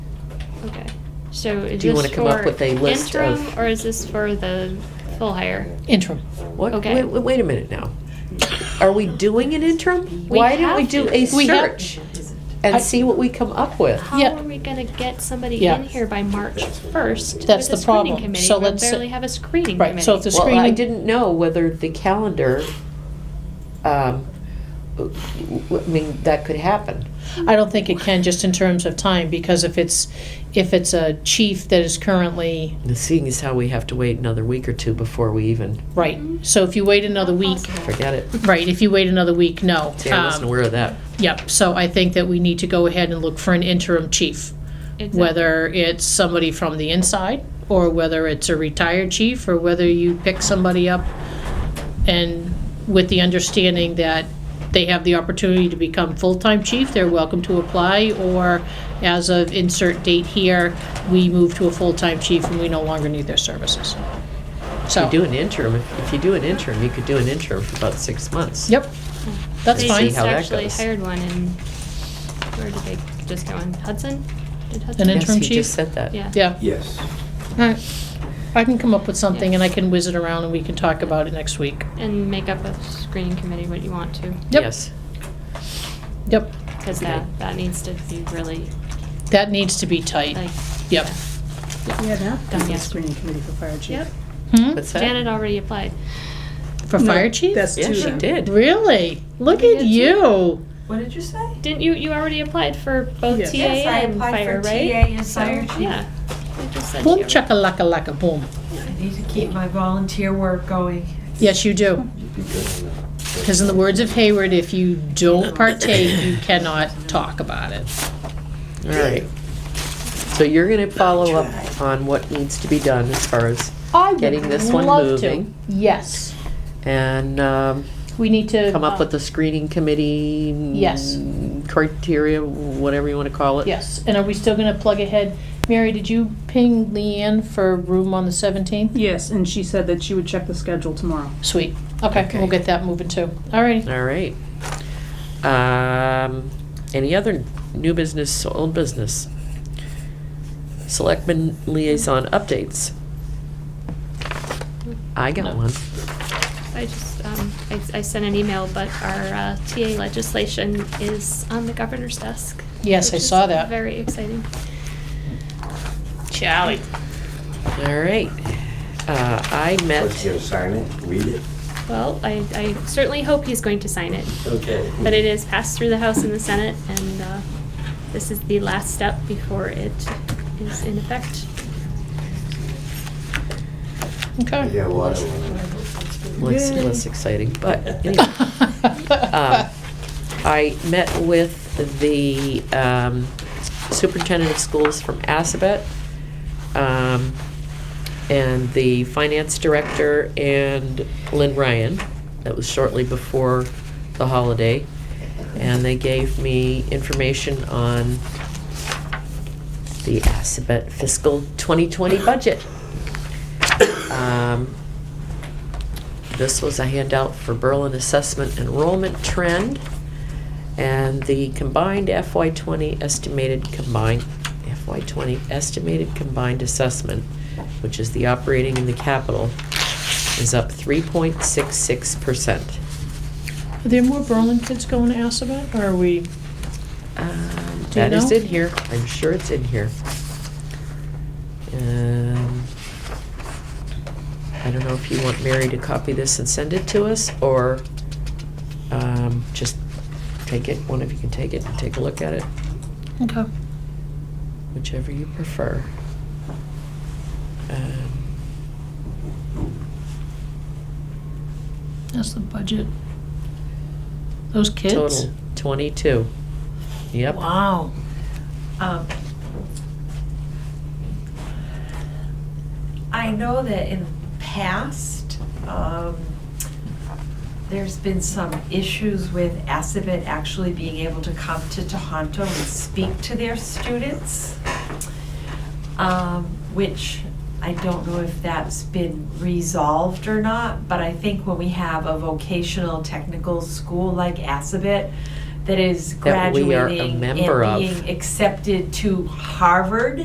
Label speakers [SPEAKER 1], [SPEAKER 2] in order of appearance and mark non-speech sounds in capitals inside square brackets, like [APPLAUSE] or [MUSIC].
[SPEAKER 1] Okay, so is
[SPEAKER 2] Do you wanna
[SPEAKER 1] this
[SPEAKER 2] come up
[SPEAKER 1] for
[SPEAKER 2] with a list of-
[SPEAKER 1] interim, or is this for the full hire?
[SPEAKER 3] interim.
[SPEAKER 2] What,
[SPEAKER 1] Okay.
[SPEAKER 2] wait, wait, wait a minute now. Are we doing an interim?
[SPEAKER 1] We
[SPEAKER 2] Why don't we
[SPEAKER 1] have
[SPEAKER 2] do
[SPEAKER 1] to.
[SPEAKER 2] a
[SPEAKER 3] We have-
[SPEAKER 2] search and
[SPEAKER 3] I-
[SPEAKER 2] see what we come up with?
[SPEAKER 1] How
[SPEAKER 3] Yeah.
[SPEAKER 1] are we gonna get somebody
[SPEAKER 3] Yeah.
[SPEAKER 1] in here by March first?
[SPEAKER 3] That's the problem. So
[SPEAKER 1] We
[SPEAKER 3] let's-
[SPEAKER 1] barely have a screening
[SPEAKER 3] Right,
[SPEAKER 1] committee.
[SPEAKER 3] so if the
[SPEAKER 2] Well, I
[SPEAKER 3] screening-
[SPEAKER 2] didn't know whether the calendar, um, w- w- I mean, that could happen.
[SPEAKER 3] I don't think it can, just in terms of time, because if it's, if it's a chief that is currently,
[SPEAKER 2] The Seeing as how we have to wait another week or two before we even,
[SPEAKER 3] right, so if you wait another week,
[SPEAKER 2] forget it.
[SPEAKER 3] right, if you wait another week, no.
[SPEAKER 2] See, I wasn't
[SPEAKER 3] Um,
[SPEAKER 2] aware of that.
[SPEAKER 3] Yep, so I think that we need to go ahead and look for an interim chief,
[SPEAKER 1] Exactly.
[SPEAKER 3] whether it's somebody from the inside, or whether it's a retired chief, or whether you pick somebody up and with the understanding that they have the opportunity to become full-time chief, they're welcome to apply, or as of insert date here, we move to a full-time chief and we no longer need their services.
[SPEAKER 2] You
[SPEAKER 3] So,
[SPEAKER 2] do an interim, if if you do an interim, you could do an interim for about six months.
[SPEAKER 3] yep, that's
[SPEAKER 2] See
[SPEAKER 1] They
[SPEAKER 3] fine.
[SPEAKER 1] just
[SPEAKER 2] how that
[SPEAKER 1] actually
[SPEAKER 2] goes.
[SPEAKER 1] hired one in, where did they just go in, Hudson? Did Hudson?
[SPEAKER 3] An
[SPEAKER 2] Yes,
[SPEAKER 3] interim
[SPEAKER 2] he
[SPEAKER 3] chief?
[SPEAKER 2] just said that.
[SPEAKER 1] Yeah.
[SPEAKER 3] Yeah,
[SPEAKER 4] Yes.
[SPEAKER 3] alright. I can come up with something and I can whiz it around and we can talk about it next week.
[SPEAKER 1] And make up a screening committee what you want to,
[SPEAKER 3] Yep.
[SPEAKER 2] Yes.
[SPEAKER 3] Yep,
[SPEAKER 1] because
[SPEAKER 2] Okay.
[SPEAKER 1] that, that needs to be really,
[SPEAKER 3] that needs to be tight.
[SPEAKER 1] like.
[SPEAKER 3] Yep.
[SPEAKER 5] Yeah, that
[SPEAKER 1] Done
[SPEAKER 5] done the
[SPEAKER 1] yet.
[SPEAKER 5] screening committee for fire chief.
[SPEAKER 1] Yep,
[SPEAKER 3] Hmm?
[SPEAKER 2] What's that?
[SPEAKER 1] Janet already applied.
[SPEAKER 3] For
[SPEAKER 5] No,
[SPEAKER 3] fire chief?
[SPEAKER 5] That's two
[SPEAKER 2] Yeah, she
[SPEAKER 5] then.
[SPEAKER 2] did.
[SPEAKER 3] Really? Look at you.
[SPEAKER 6] What did you say?
[SPEAKER 1] Didn't you, you already applied for both
[SPEAKER 5] Yes.
[SPEAKER 1] TA
[SPEAKER 6] Yes, I
[SPEAKER 1] and
[SPEAKER 6] applied
[SPEAKER 1] fire,
[SPEAKER 6] for
[SPEAKER 1] right?
[SPEAKER 6] TA and fire
[SPEAKER 1] So,
[SPEAKER 6] chief.
[SPEAKER 1] Yeah. I just said
[SPEAKER 3] Boom
[SPEAKER 1] you already-
[SPEAKER 3] chakalaka laka boom.
[SPEAKER 6] I need to keep my volunteer work going.
[SPEAKER 3] Yes, you do.
[SPEAKER 4] You'd be good on that.
[SPEAKER 3] Because in the words of Hayward, if you don't partake, you cannot talk about it.
[SPEAKER 2] All right. So you're gonna follow up on what needs to be done as far as,
[SPEAKER 3] I
[SPEAKER 2] Getting this one moving.
[SPEAKER 3] Yes.
[SPEAKER 2] and, um,
[SPEAKER 3] We need to.
[SPEAKER 2] come up with
[SPEAKER 3] the uh,
[SPEAKER 2] a screening committee.
[SPEAKER 3] Yes.
[SPEAKER 2] mm, Criteria, whatever you wanna call it.
[SPEAKER 3] Yes, and are we still gonna plug ahead? Mary, did you ping Leanne for room on the seventeenth?
[SPEAKER 5] Yes, and she said that she would check the schedule tomorrow.
[SPEAKER 3] Sweet. Okay,
[SPEAKER 2] Okay.
[SPEAKER 3] we'll get that moving too. All righty.
[SPEAKER 2] All right. Um, any other new business, old business? Selectmen liaison updates. I got
[SPEAKER 3] No.
[SPEAKER 2] one.
[SPEAKER 1] I just, um, I, I sent an email, but our, uh, TA legislation is on the governor's desk.
[SPEAKER 3] Yes, I
[SPEAKER 1] which is
[SPEAKER 3] saw that.
[SPEAKER 1] Very exciting.
[SPEAKER 3] Charlie.
[SPEAKER 2] All right. Uh, I
[SPEAKER 4] First, you
[SPEAKER 2] met,
[SPEAKER 4] gotta sign it, read it.
[SPEAKER 1] Well, I, I certainly hope he's going to sign it,
[SPEAKER 4] Okay.
[SPEAKER 1] but it is passed through the House and the Senate, and, uh, this is the last step before it is in effect.
[SPEAKER 3] Okay. [LAUGHS]
[SPEAKER 4] Yeah, well, I don't know.
[SPEAKER 2] less,
[SPEAKER 5] Yay.
[SPEAKER 2] less exciting, but anyway. Um, I met with the um, superintendent of schools from Assabet, um, and the finance director, and Lynn Ryan. That was shortly before the holiday. And they gave me information on the Assabet fiscal 2020 budget. Um, This was a handout for Berlin Assessment Enrollment Trend and the combined FY twenty estimated combined, FY twenty estimated combined assessment, which is the operating and the capital, is up three point six six percent.
[SPEAKER 3] Are there more Berlin kids going to Assabet, or are we? Um, Do you
[SPEAKER 2] That is
[SPEAKER 3] know?
[SPEAKER 2] in here, I'm sure it's in here. Um, I don't know if you want Mary to copy this and send it to us, or um, just take it, one of you can take it and take a look at it.
[SPEAKER 3] Okay.
[SPEAKER 2] whichever you prefer. Um,
[SPEAKER 3] That's the budget. Those kids?
[SPEAKER 2] Total, 22. Yep.
[SPEAKER 3] Wow.
[SPEAKER 6] Um, I know that in the past, um, there's been some issues with Assabet actually being able to come to Tohoto and speak to their students, um, which I don't know if that's been resolved or not, but I think when we have a vocational technical school like Assabet that is
[SPEAKER 2] That we are a
[SPEAKER 6] graduating and
[SPEAKER 2] member of.
[SPEAKER 6] being accepted to Harvard,